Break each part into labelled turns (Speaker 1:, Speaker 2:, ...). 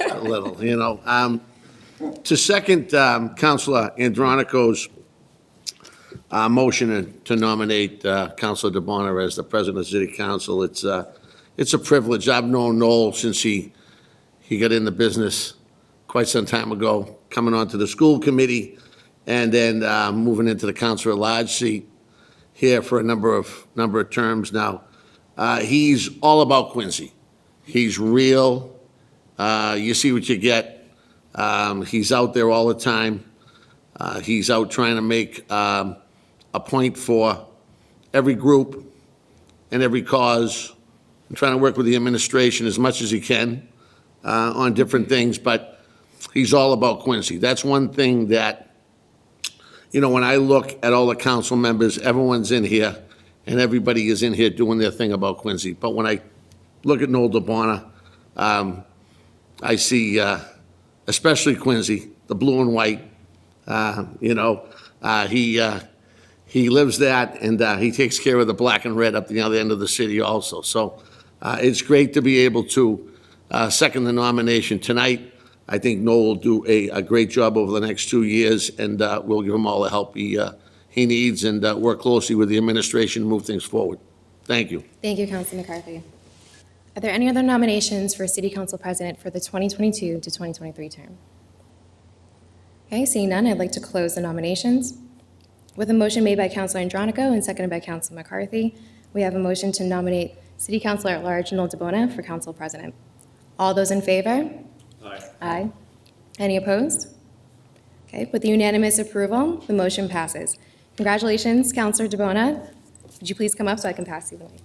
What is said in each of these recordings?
Speaker 1: that little, you know. Um, To second um, Counselor Andronico's uh, motion to nominate uh, Counselor DeBonner as the president of the city council, it's, uh, it's a privilege. I've known Noel since he, he got in the business quite some time ago, coming onto the school committee and then uh, moving into the council at large seat here for a number of, number of terms now. Uh, He's all about Quincy. He's real. Uh, You see what you get. Um, He's out there all the time. Uh, He's out trying to make um, a point for every group and every cause, and trying to work with the administration as much as he can uh, on different things, but he's all about Quincy. That's one thing that you know, when I look at all the council members, everyone's in here, and everybody is in here doing their thing about Quincy. But when I look at Noel DeBona, um, I see, uh, especially Quincy, the blue and white, uh, you know, uh, he, uh, he lives that, and uh, he takes care of the black and red up the other end of the city also. So uh, it's great to be able to uh, second the nomination tonight. I think Noel will do a, a great job over the next two years, and uh, we'll give him all the help he, uh, he needs and uh, work closely with the administration, to move things forward. Thank you.
Speaker 2: Thank you, Councilor McCarthy. Are there any other nominations for City Council President for the 2022 to 2023 term? Okay, seeing none, I'd like to close the nominations. With a motion made by Councilor Andronico and seconded by Councilor McCarthy, we have a motion to nominate City Councilor at Large Noel DeBona for Council President. All those in favor? Aye. Aye. Any opposed? Okay, with unanimous approval, the motion passes. Congratulations, Councilor DeBona. Would you please come up so I can pass you the mic?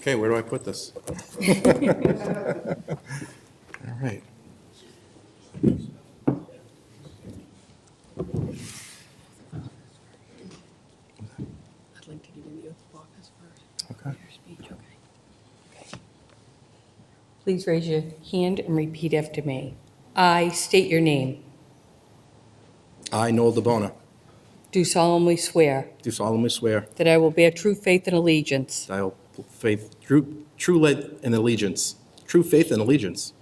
Speaker 3: Okay, where do I put this? All right.
Speaker 4: I'd like to give you the oath of office first.
Speaker 3: Okay.
Speaker 4: Your speech, okay? Please raise your hand and repeat after me. I state your name.
Speaker 3: I, Noel DeBona,
Speaker 4: Do solemnly swear
Speaker 3: do solemnly swear
Speaker 4: that I will bear true faith and allegiance
Speaker 3: that I will faith, true, true lead and allegiance, true faith and allegiance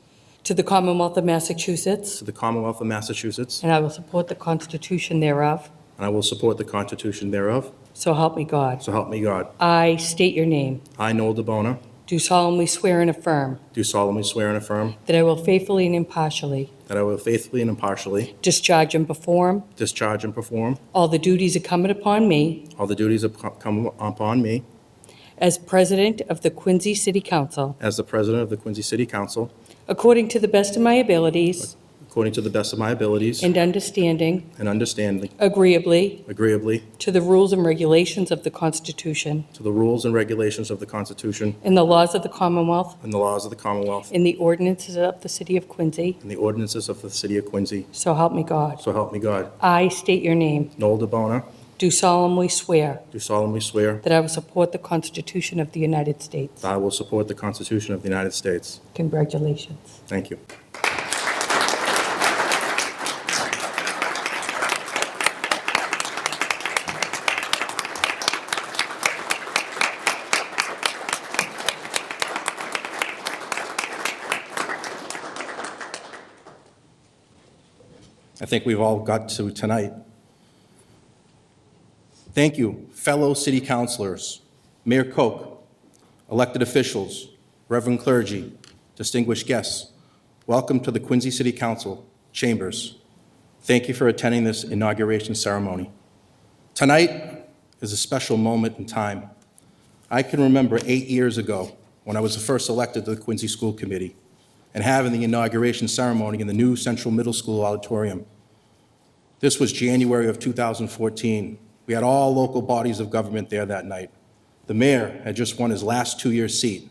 Speaker 4: to the Commonwealth of Massachusetts,
Speaker 3: to the Commonwealth of Massachusetts,
Speaker 4: and I will support the Constitution thereof,
Speaker 3: and I will support the Constitution thereof,
Speaker 4: so help me God.
Speaker 3: so help me God.
Speaker 4: I state your name.
Speaker 3: I, Noel DeBona,
Speaker 4: Do solemnly swear and affirm
Speaker 3: do solemnly swear and affirm
Speaker 4: that I will faithfully and impartially
Speaker 3: that I will faithfully and impartially
Speaker 4: discharge and perform
Speaker 3: discharge and perform
Speaker 4: all the duties incumbent upon me
Speaker 3: all the duties that come upon me
Speaker 4: as President of the Quincy City Council
Speaker 3: as the President of the Quincy City Council,
Speaker 4: According to the best of my abilities
Speaker 3: according to the best of my abilities
Speaker 4: and understanding,
Speaker 3: and understanding,
Speaker 4: agreeably
Speaker 3: agreeably
Speaker 4: to the rules and regulations of the Constitution
Speaker 3: to the rules and regulations of the Constitution
Speaker 4: and the laws of the Commonwealth
Speaker 3: and the laws of the Commonwealth
Speaker 4: and the ordinances of the City of Quincy,
Speaker 3: and the ordinances of the City of Quincy.
Speaker 4: so help me God.
Speaker 3: So help me God.
Speaker 4: I state your name,
Speaker 3: Noel DeBona,
Speaker 4: do solemnly swear
Speaker 3: do solemnly swear
Speaker 4: that I will support the Constitution of the United States.
Speaker 3: that I will support the Constitution of the United States.
Speaker 4: Congratulations.
Speaker 3: Thank you. I think we've all got to tonight. Thank you, fellow city councilors, Mayor Koch, elected officials, reverend clergy, distinguished guests, welcome to the Quincy City Council chambers. Thank you for attending this inauguration ceremony. Tonight is a special moment in time. I can remember eight years ago when I was first elected to the Quincy School Committee and having the inauguration ceremony in the new Central Middle School auditorium. This was January of 2014. We had all local bodies of government there that night. The mayor had just won his last two-year seat.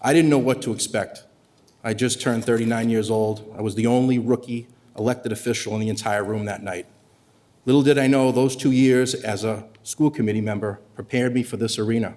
Speaker 3: I didn't know what to expect. I just turned 39 years old. I was the only rookie elected official in the entire room that night. Little did I know, those two years as a school committee member prepared me for this arena.